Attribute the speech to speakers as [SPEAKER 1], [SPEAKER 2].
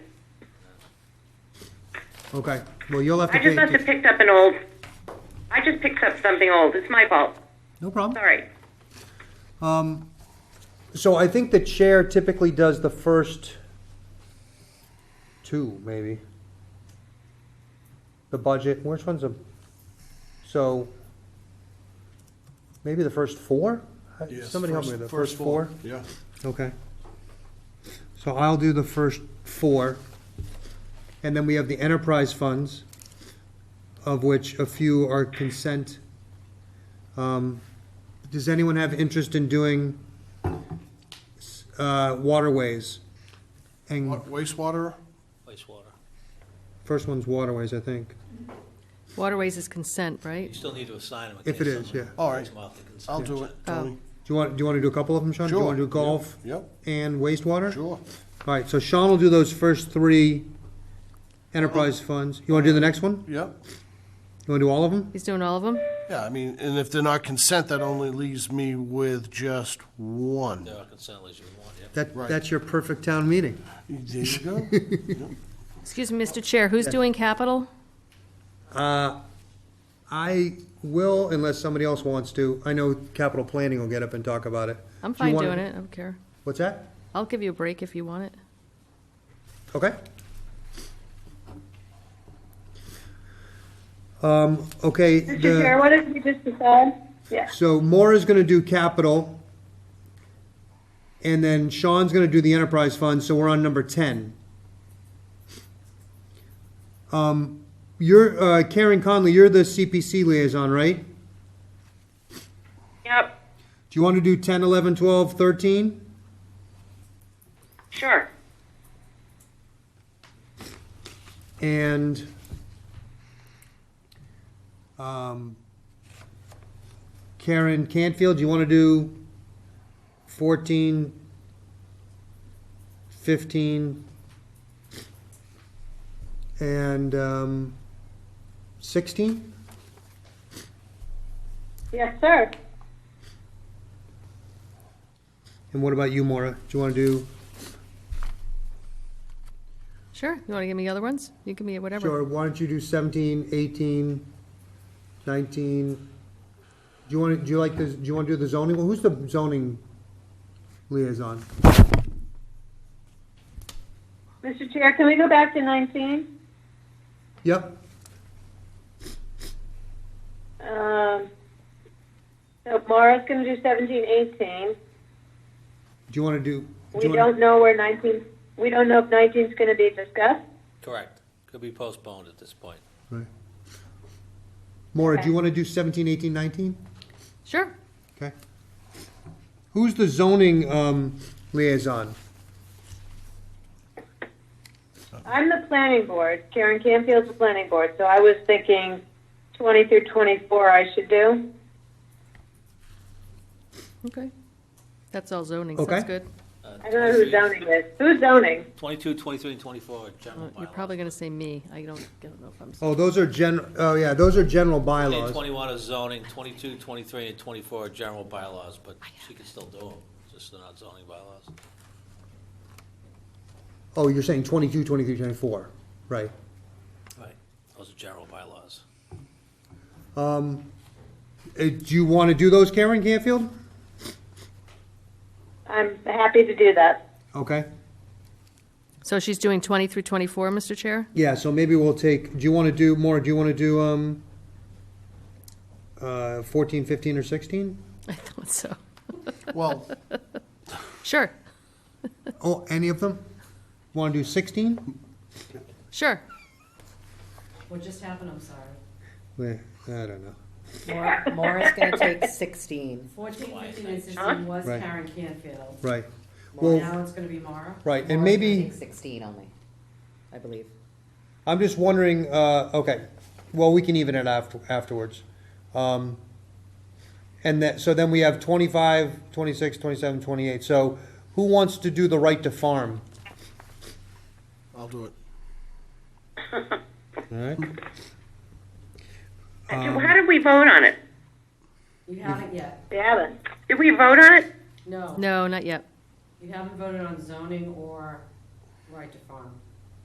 [SPEAKER 1] Okay, well, you'll have to
[SPEAKER 2] I just
[SPEAKER 1] pay,
[SPEAKER 2] must have picked up an old, I just picked up something old. It's my fault.
[SPEAKER 1] no problem.
[SPEAKER 2] Sorry.
[SPEAKER 1] So I think the chair typically does the first two, maybe. The budget, which one's a, so, maybe the first four?
[SPEAKER 3] Yes,
[SPEAKER 1] Somebody help me
[SPEAKER 3] first-
[SPEAKER 1] with the first four?
[SPEAKER 3] Yeah,
[SPEAKER 1] Okay. So I'll do the first four, and then we have the enterprise funds, of which a few are consent. Um, Does anyone have interest in doing uh, waterways? And
[SPEAKER 3] Wa- wastewater,
[SPEAKER 4] wastewater.
[SPEAKER 1] first one's waterways, I think.
[SPEAKER 5] Waterways is consent, right?
[SPEAKER 4] You still need to assign them. in
[SPEAKER 1] If it
[SPEAKER 4] case
[SPEAKER 1] is,
[SPEAKER 4] someone
[SPEAKER 1] yeah.
[SPEAKER 3] All right.
[SPEAKER 4] pulls them off the consent
[SPEAKER 3] I'll do it,
[SPEAKER 4] agenda.
[SPEAKER 3] Tony.
[SPEAKER 1] Do you want, do you want to do a couple of them, Sean? Do you want to
[SPEAKER 3] Sure.
[SPEAKER 1] do golf
[SPEAKER 3] Yep,
[SPEAKER 1] and wastewater?
[SPEAKER 3] sure.
[SPEAKER 1] All right, so Sean will do those first three enterprise
[SPEAKER 3] Uh-huh.
[SPEAKER 1] funds. You want to do the next one?
[SPEAKER 3] Yep.
[SPEAKER 1] You want to do all of them?
[SPEAKER 5] He's doing all of them?
[SPEAKER 3] Yeah, I mean, and if they're not consent, that only leaves me with just one.
[SPEAKER 4] There are consent leads you want, yeah.
[SPEAKER 1] That,
[SPEAKER 3] Right.
[SPEAKER 1] that's your perfect town meeting.
[SPEAKER 3] There you go.
[SPEAKER 5] Excuse me, Mr. Chair, who's doing capital?
[SPEAKER 1] I will, unless somebody else wants to, I know capital planning will get up and talk about it.
[SPEAKER 5] I'm
[SPEAKER 1] Do you
[SPEAKER 5] fine
[SPEAKER 1] wanna-
[SPEAKER 5] doing it, I don't care.
[SPEAKER 1] What's that?
[SPEAKER 5] I'll give you a break if you want it.
[SPEAKER 1] Okay. Um, okay,
[SPEAKER 6] Mr. Chair,
[SPEAKER 1] the,
[SPEAKER 6] what did we just decide? Yeah.
[SPEAKER 1] so Maura's gonna do capital. And then Sean's gonna do the enterprise fund, so we're on number ten. Um, you're, uh, Karen Conley, you're the CPC liaison, right?
[SPEAKER 2] Yep,
[SPEAKER 1] Do you want to do 10, 11, 12, 13?
[SPEAKER 2] sure.
[SPEAKER 1] And um, Karen Canfield, do you want to do 14, 15, and um, 16?
[SPEAKER 6] Yes, sir.
[SPEAKER 1] And what about you, Maura? Do you want to do,
[SPEAKER 5] Sure, you want to give me the other ones? You give me
[SPEAKER 1] sure,
[SPEAKER 5] whatever.
[SPEAKER 1] why don't you do 17, 18, 19? Do you want to, do you like, this- do you want to do the zoning? Well, Who's the zoning liaison?
[SPEAKER 6] Mr. Chair, can we go back to 19?
[SPEAKER 1] Yep.
[SPEAKER 6] Um, So Mara's going to do 17, 18.
[SPEAKER 1] Do you want to do? do
[SPEAKER 6] We
[SPEAKER 1] you wanna-
[SPEAKER 6] don't know where 19, we don't know if 19 is going to be discussed.
[SPEAKER 4] Correct. Could be postponed at this point.
[SPEAKER 1] Right. Maura, do you want to do 17, 18, 19?
[SPEAKER 5] Sure,
[SPEAKER 1] Okay. Who's the zoning um, liaison?
[SPEAKER 6] I'm the planning board. Karen Canfield's the planning board, so I was thinking 20 through 24 I should do.
[SPEAKER 5] okay. That's all zoning, so that's
[SPEAKER 1] Okay.
[SPEAKER 5] good.
[SPEAKER 6] I don't know who zoning is. Who's zoning?
[SPEAKER 4] Uh, Twenty-two, twenty-three, and twenty-four are
[SPEAKER 5] Uh,
[SPEAKER 4] general bylaws.
[SPEAKER 5] You're probably going to say me, I don't, I don't know if I'm,
[SPEAKER 1] Oh, those are gen, oh yeah, those are general
[SPEAKER 4] And
[SPEAKER 1] bylaws.
[SPEAKER 4] Twenty-one is zoning, twenty-two, twenty-three, and twenty-four are general bylaws, but she can still do them, just they're not zoning bylaws.
[SPEAKER 1] Oh, you're saying 22, 23, 24, right.
[SPEAKER 4] Right. Those are general bylaws.
[SPEAKER 1] Uh, Do you want to do those, Karen Canfield?
[SPEAKER 6] I'm happy to do that.
[SPEAKER 1] Okay.
[SPEAKER 5] so she's doing 20 through 24, Mr. Chair?
[SPEAKER 1] Yeah, so maybe we'll take, do you want to do, Maura, do you want to do um, uh, 14, 15, or 16?
[SPEAKER 5] I thought so.
[SPEAKER 3] Well,
[SPEAKER 5] Sure,
[SPEAKER 1] Oh, any of them? Want to do 16?
[SPEAKER 5] sure.
[SPEAKER 7] What just happened, I'm sorry?
[SPEAKER 1] Yeah, I don't know.
[SPEAKER 8] Maura- Maura's gonna take sixteen.
[SPEAKER 7] Fourteen, fifteen, and sixteen was
[SPEAKER 1] Right.
[SPEAKER 7] Karen Canfield.
[SPEAKER 1] Right. Well,
[SPEAKER 7] Now it's gonna be Mara.
[SPEAKER 1] right, and
[SPEAKER 8] Maura's gonna
[SPEAKER 1] maybe,
[SPEAKER 8] take Sixteen only, I believe.
[SPEAKER 1] I'm just wondering, uh, okay, well, we can even it after, afterwards. Um, and that, so then we have 25, 26, 27, 28. So who wants to do the right to farm?
[SPEAKER 3] I'll do it.
[SPEAKER 1] All right.
[SPEAKER 2] Do- How did we vote on it?
[SPEAKER 7] You haven't yet.
[SPEAKER 6] We haven't.
[SPEAKER 2] Did we vote on it?
[SPEAKER 7] No,
[SPEAKER 5] No, not yet.
[SPEAKER 7] you haven't voted on zoning or right to farm.